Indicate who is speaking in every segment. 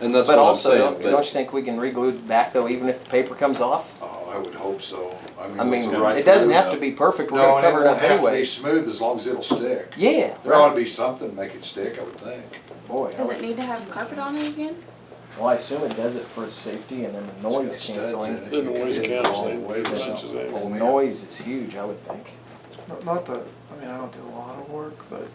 Speaker 1: And that's
Speaker 2: But
Speaker 1: what I'm
Speaker 2: also,
Speaker 1: saying.
Speaker 2: don't
Speaker 1: but-
Speaker 2: don't you think we can reglue it back though, even if the paper comes off?
Speaker 3: Oh, I would hope so.
Speaker 2: I
Speaker 3: it's
Speaker 2: mean,
Speaker 3: the right
Speaker 2: it doesn't
Speaker 3: move.
Speaker 2: have to be perfect, we're
Speaker 3: No,
Speaker 2: gonna
Speaker 3: and it
Speaker 2: cover it
Speaker 3: won't
Speaker 2: up
Speaker 3: have to be
Speaker 2: anyway.
Speaker 3: smooth as long as it'll stick.
Speaker 2: Yeah.
Speaker 3: There ought to be something to make it stick, I would think.
Speaker 2: Boy, I
Speaker 4: Does
Speaker 2: would-
Speaker 4: it need to have carpet on it again?
Speaker 2: well, I assume it does it for safety and then the
Speaker 3: It's got
Speaker 2: noise
Speaker 3: studs in
Speaker 2: canceling.
Speaker 3: it.
Speaker 5: The
Speaker 3: You could
Speaker 5: noise
Speaker 3: hit it all
Speaker 5: canceling
Speaker 3: the way with
Speaker 5: devices,
Speaker 3: something.
Speaker 5: I mean.
Speaker 3: Oh,
Speaker 2: The
Speaker 3: man.
Speaker 2: noise is huge, I would think.
Speaker 6: Not- Not that, I mean, I don't do a lot of work, but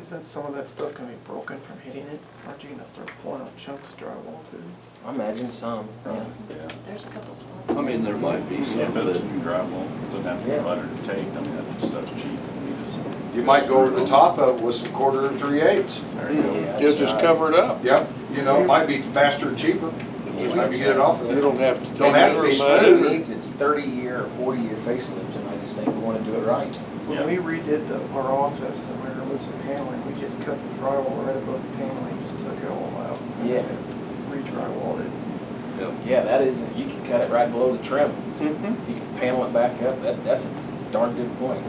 Speaker 6: isn't some of that stuff gonna be broken from hitting it? Aren't you gonna start pulling off chunks of drywall too?
Speaker 2: I imagine some. yeah.
Speaker 1: Yeah.
Speaker 4: There's a couple spots.
Speaker 1: I mean, there might be
Speaker 7: Yeah,
Speaker 1: some
Speaker 7: but it's
Speaker 1: that,
Speaker 7: new drywall, it doesn't have to be
Speaker 2: Yeah.
Speaker 7: lettered and taped, I mean, that stuff's cheap. You just-
Speaker 3: You might go over the top of it with some quarter and three eighths.
Speaker 7: There you go.
Speaker 2: Yeah.
Speaker 5: You'll just cover it up.
Speaker 3: Yep, you know, it might be faster and cheaper. Time you get it off of
Speaker 5: You
Speaker 3: there.
Speaker 5: don't have to take
Speaker 3: Don't have to be
Speaker 5: it or mud
Speaker 3: smooth.
Speaker 2: It
Speaker 5: it.
Speaker 2: needs its thirty year or forty year facelift and I just think we wanna do it right.
Speaker 7: Yeah.
Speaker 6: When we redid the, our office and we removed some paneling, we just cut the drywall right above the paneling, just took it all out.
Speaker 2: Yeah.
Speaker 6: Re-drywalled it.
Speaker 2: Yeah, that is, you can cut it right below the trim. You can panel it back up, that, that's a darn good point.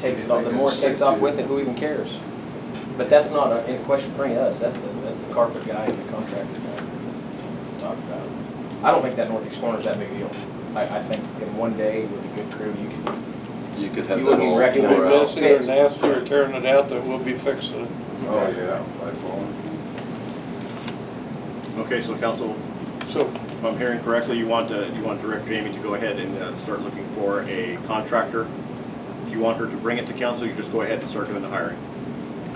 Speaker 2: Takes it off, the more it takes off with it, who even cares? But that's not a, in question for any of us, that's the, that's the carpet guy and the contractor guy to talk about. I don't think that northeast corner's that big a deal. I, I think in one day with a good crew, you can,
Speaker 1: you could have
Speaker 2: You
Speaker 1: that
Speaker 2: wouldn't
Speaker 1: all
Speaker 5: It'll
Speaker 2: recognize
Speaker 1: tore
Speaker 5: be
Speaker 1: out.
Speaker 5: messy or
Speaker 2: Fixed.
Speaker 5: nasty or tearing it out, that we'll be fixing it.
Speaker 3: Oh, yeah, by far.
Speaker 8: Okay, so council,
Speaker 5: So,
Speaker 8: if I'm hearing correctly, you want to, you want to direct Jamie to go ahead and uh, start looking for a contractor? Do you want her to bring it to council, you just go ahead and start doing the hiring?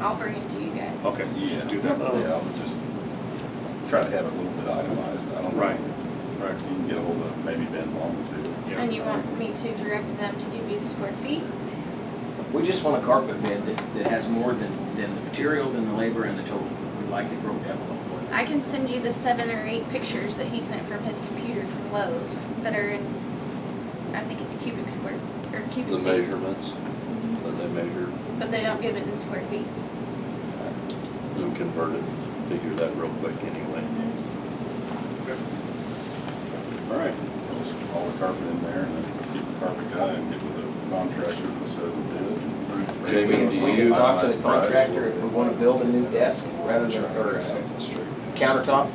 Speaker 4: I'll bring it to you guys.
Speaker 8: Okay, you just do that.
Speaker 5: uh,
Speaker 1: Yeah, I would just try to have it a little bit itemized, I don't. know.
Speaker 8: Right, right,
Speaker 7: You can get ahold of maybe Ben Long too.
Speaker 8: yeah.
Speaker 4: And you want me to direct them to give you the square feet?
Speaker 2: we just want a carpet bid that, that has more than, than the material, than the labor and the total. We'd like it broke down a little more.
Speaker 4: I can send you the seven or eight pictures that he sent from his computer from Lowe's that are in, I think it's cubic square, or cubic.
Speaker 1: The
Speaker 4: feet,
Speaker 1: measurements
Speaker 4: Mm-hmm.
Speaker 1: that they measure,
Speaker 4: But they don't give it in square feet.
Speaker 1: you can convert it, figure that real quick anyway.
Speaker 4: Mm-hmm.
Speaker 8: all right.
Speaker 7: Just all the carpet in there and then get the carpet guy and get with the contractor and set the bid.
Speaker 1: Jamie, do
Speaker 2: We
Speaker 1: you-
Speaker 2: can talk to the contractor if we wanna build a new desk rather than, or a countertop,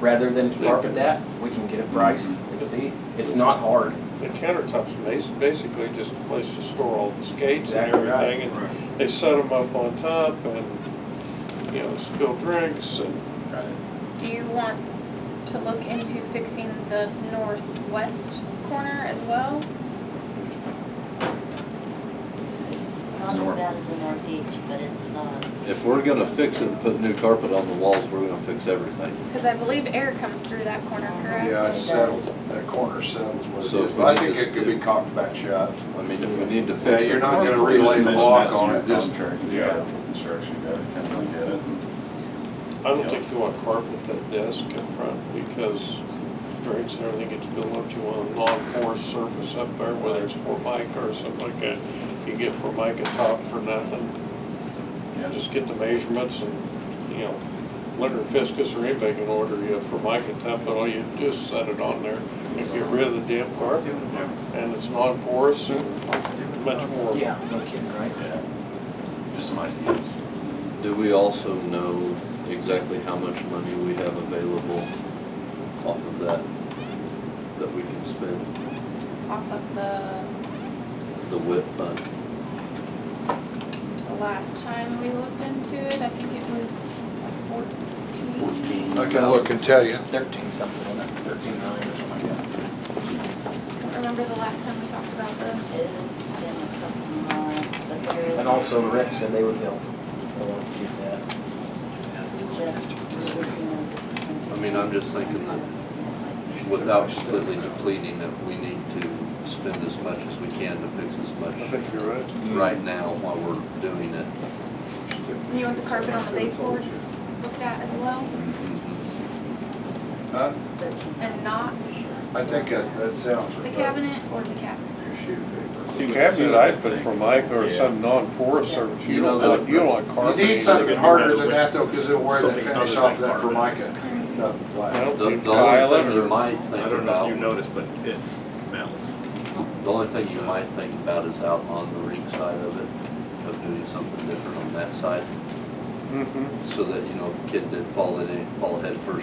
Speaker 2: rather than carpet that, we can get a price and see. It's not hard.
Speaker 5: the countertop's ma- basically just a place to store all the skates and
Speaker 2: Exactly right.
Speaker 5: everything. And they set them up on top and, you know, spill drinks and,
Speaker 4: Do you want to look into fixing the northwest corner as well?
Speaker 9: It's not as bad as the northeast, but it's not.
Speaker 1: If we're gonna fix it and put new carpet on the walls, we're gonna fix everything.
Speaker 4: Because I believe air comes through that corner, correct?
Speaker 3: Yeah, it's settled, that corner settles what it
Speaker 1: So
Speaker 3: is,
Speaker 1: if
Speaker 3: but I
Speaker 1: we
Speaker 3: think
Speaker 1: just-
Speaker 3: it could be cocked back shut.
Speaker 1: I mean, if we need to
Speaker 3: Yeah,
Speaker 1: fix
Speaker 3: you're
Speaker 1: it,
Speaker 3: not gonna
Speaker 7: Just
Speaker 3: relay the
Speaker 7: mention
Speaker 3: block
Speaker 7: that to
Speaker 3: on
Speaker 7: your
Speaker 3: it, just,
Speaker 7: contractor,
Speaker 3: yeah.
Speaker 7: Construction guy, come and get it.
Speaker 5: I don't think you want carpet that desk in front because drinks and everything gets built up. You want a non-porous surface up there, whether it's formica or something like that. You get formica top for nothing.
Speaker 7: Yeah.
Speaker 5: Just get the measurements and, you know, Leonard Fiskus or anybody can order you a formica top, but all you do is set it on there and get rid of the damn
Speaker 6: Like
Speaker 5: carpet.
Speaker 6: doing it now.
Speaker 5: And it's non-porous and
Speaker 6: Like doing it
Speaker 5: much
Speaker 6: now.
Speaker 5: more.
Speaker 2: No kidding, right?
Speaker 7: Yeah. Just some ideas.
Speaker 1: do we also know exactly how much money we have available off of that, that we can spend,
Speaker 4: Off of the,
Speaker 1: the WIP fund?
Speaker 4: the last time we looked into it, I think it was like fourteen.
Speaker 3: I can look and tell you.
Speaker 2: Thirteen something, wasn't it? thirteen nine or something like that.
Speaker 4: I don't remember the last time we talked about the,
Speaker 9: It's been a couple months, but there is.
Speaker 2: And also Rick said they would help. I want to get that.
Speaker 9: Jeff was working on something.
Speaker 1: I mean, I'm just thinking that without completely depleting it, we need to spend as much as we can to fix as much
Speaker 5: you're right.
Speaker 1: right now while we're doing it.
Speaker 4: you want the carpet on the baseboards looked at as well?
Speaker 8: Mm-hmm.
Speaker 3: Huh?
Speaker 4: And not
Speaker 3: I think that, that sounds.
Speaker 4: the
Speaker 3: right.
Speaker 4: cabinet or the cabinet?
Speaker 3: Your sheet of
Speaker 5: The
Speaker 3: paper.
Speaker 5: cabinet I'd put formica or some non-porous
Speaker 9: Yeah.
Speaker 5: surface.
Speaker 1: uh, You
Speaker 5: You don't
Speaker 1: know,
Speaker 5: want, you don't want
Speaker 3: You
Speaker 5: carpet.
Speaker 3: need something harder than that though, because it'll wear the
Speaker 8: Something
Speaker 3: finish
Speaker 8: other
Speaker 3: off
Speaker 8: than
Speaker 3: that formica. Nothing
Speaker 5: I
Speaker 3: flat.
Speaker 5: don't
Speaker 1: The,
Speaker 5: think
Speaker 1: the only thing
Speaker 5: tile
Speaker 1: you
Speaker 5: or
Speaker 1: might
Speaker 8: I
Speaker 1: think
Speaker 8: don't know if you
Speaker 1: about,
Speaker 8: noticed, but it smells.
Speaker 1: the only thing you might think about is out on the ring side of it, of doing
Speaker 5: Mm-hmm.
Speaker 1: something different on that side. So that, you know, if a kid did fall in it, fall head first